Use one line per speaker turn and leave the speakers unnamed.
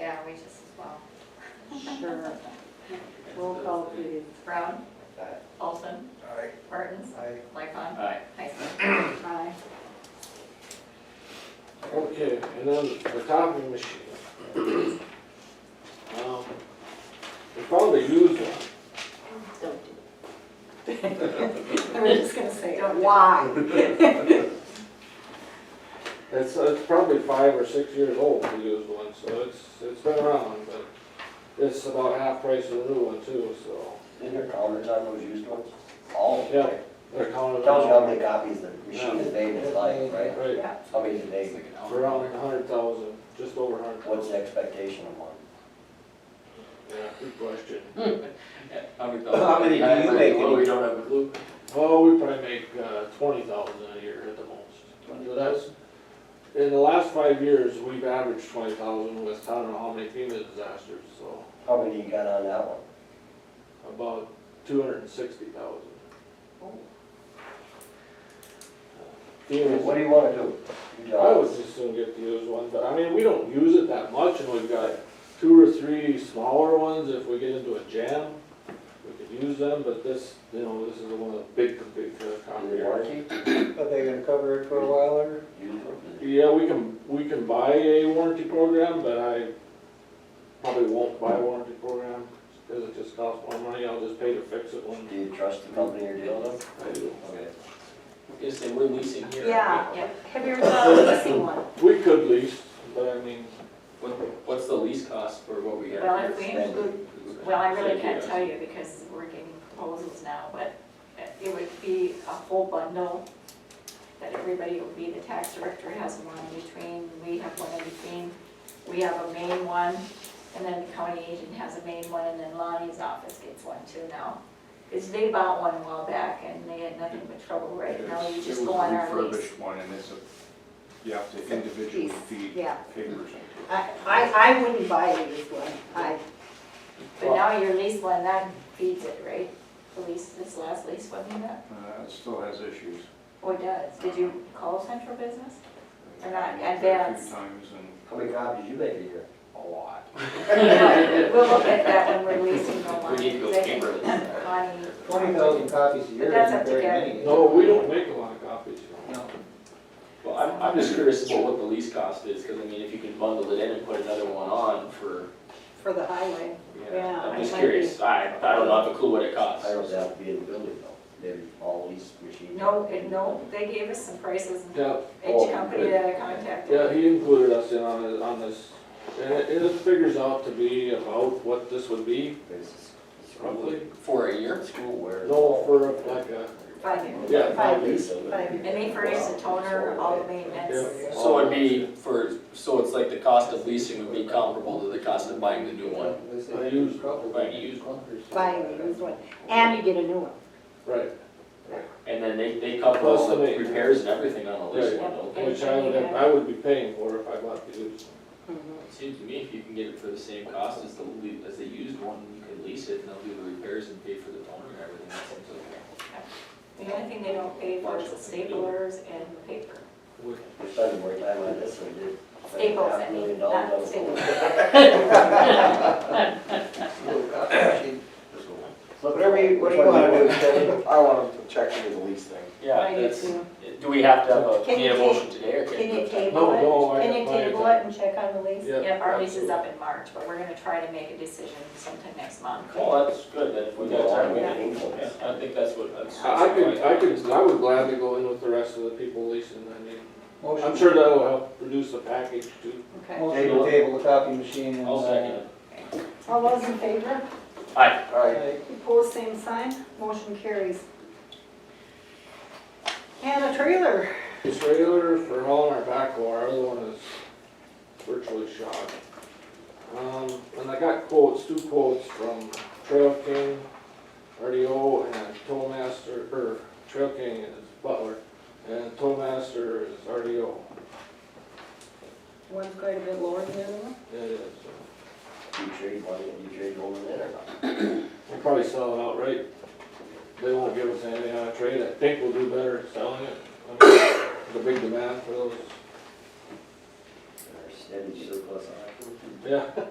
outrageous as well.
Sure. Roll call, please.
Brown,
Aye.
Paulson,
Aye.
Martins,
Aye.
Lightfon,
Aye.
Heisler.
Aye.
Okay, and then the copy machine. Um, We probably use one.
Don't do it. I was just gonna say, why?
It's, it's probably five or six years old, the used one, so it's, it's been around, but it's about half price of the new one too, so.
Is there counters on those used ones? All of them?
Yeah. They're counting.
Tells you how many copies the machine is made in its life, right?
Right,
How many today?
around a hundred thousand, just over a hundred
What's
thousand.
the expectation of one?
Yeah, good question.
How
many do you make in
We
each
don't have a clue.
Oh, we probably make, uh, twenty thousand a year at the most. So that's, in the last five years, we've averaged twenty thousand with, I don't know how many FEMA disasters, so
How many you got on that one?
about two hundred and sixty thousand.
Oh.
FEMA's
What do you wanna do? You
I
tell
would just soon get the used one, but I mean, we don't use it that much, and we've got two or three smaller ones, if we get into a jam, we could use them, but this, you know, this is the one of the big, big uh,
us. Is it
concrete.
warranty?
Are they gonna cover it for a while or?
Used one?
Yeah, we can, we can buy a warranty program, but I probably won't buy a warranty program, cause it just costs more money, I'll just pay to fix it when
Do you trust the company you're dealing with?
I do.
Okay.
Is that we're leasing here?
Yeah.
Yep.
Have you ever thought of leasing one?
We could lease, but I mean,
What, what's the lease cost for what we got?
Well, if we
Thank you.
Well, I really can't tell you because we're getting proposals now, but it would be a whole bundle that everybody, it would be the tax director has one in between, we have one in between, we have a main one, and then the county agent has a main one, and then Lonnie's office gets one too now. Because they bought one a while back and they had nothing but trouble right now, you just go on our
It was a
lease.
refurbished one, and it's a, you have to individually
Piece,
feed
yeah.
papers into it.
I, I, I wouldn't buy a used one. I,
But now your lease one, that feeds it, right? The lease, this last lease wasn't that?
Uh, It still has issues.
Oh, it does. Did you call central business? They're not
I looked at it A
advanced.
few times, and
How many copies you make a year?
A lot.
We'll look at that when we're leasing the line.
We need to go
because I think
paperless.
Connie-
Twenty thousand copies a year
But that's
isn't
up to
very
Gary.
many. is it?
no, we don't make a lot of copies, you know.
Well, I'm, I'm just curious about what the lease cost is, cause I mean, if you can bundle it in and put another one on for,
for the highway. Yeah,
I'm
it
just
might
curious. I, I don't have a clue what it costs.
I don't have to be in the building though. They're all leased machines.
No, it- no, they gave us some prices, and
Yeah,
each company that I contacted.
Yeah, he included us in on this, on this, and it, it figures out to be about what this would be
It's- it's
roughly.
For a year?
School wear.
No, for like a,
Five years.
yeah,
Five
five
years.
years.
Five
And they furnished the toner, all the maintenance.
Yeah.
So it'd be for, so it's like the cost of leasing would be comparable to the cost of buying the new one,
They say
I use-
couple.
buying a used one.
Buying a used one. And you get a new one.
Right,
And then they, they cover
Plus
all
the
the
maintenance.
repairs and everything on the lease
Right.
one, don't they?
which I would, have- I would be paying for if I bought the used.
Mm-hmm.
It Seems to me if you can get it for the same cost as the, le- as the used one, you could lease it and they'll do the repairs and pay for the toner and everything, that seems okay.
The only thing they don't pay for is the staplers and paper.
We spend more time on this than we did.
Staples, I
Half a million
mean,
dollars on
not
the
staples.
Flip it.
Whatever you- what do you
Which one
wanna do,
want?
I want
check into the lease thing.
I
Yeah,
do
that's,
too.
do we have to have a,
Can
need a
you
motion today or
Can you
No, no,
table
I-
it? Can you
I-
table it and check on the lease?
Yeah,
Yep, our lease is up in March, but we're gonna try to make a decision sometime next month.
Well, that's good, then if we
We
got
got
time,
our
we
main
can, yeah,
influence.
I think that's what, that's.
I I could, I could, I would gladly go in with the rest of the people leasing, I mean,
Motion.
I'm sure that'll help produce a package too.
Okay.
Motion to table the copy machine and.
I'll second it.
All those in favor?
uh,
Aye.
All right,
Aye.
Opposed, same sign. Motion carries. And a trailer.
This regular for hauling our backhoe, our other one is virtually shot. Um, and I got quotes, two quotes from Trail King, RDO, and Tollmaster, or Trail King is Butler, and Tollmaster is RDO.
One's quite a bit lower than the other one.
It is, uh,
do you trade one, do you trade one in or not?
we'll probably sell it outright. They won't give us anything on a trade, I think we'll do better selling it. I mean, The big demand for those,
Or steady surplus on it?
yeah.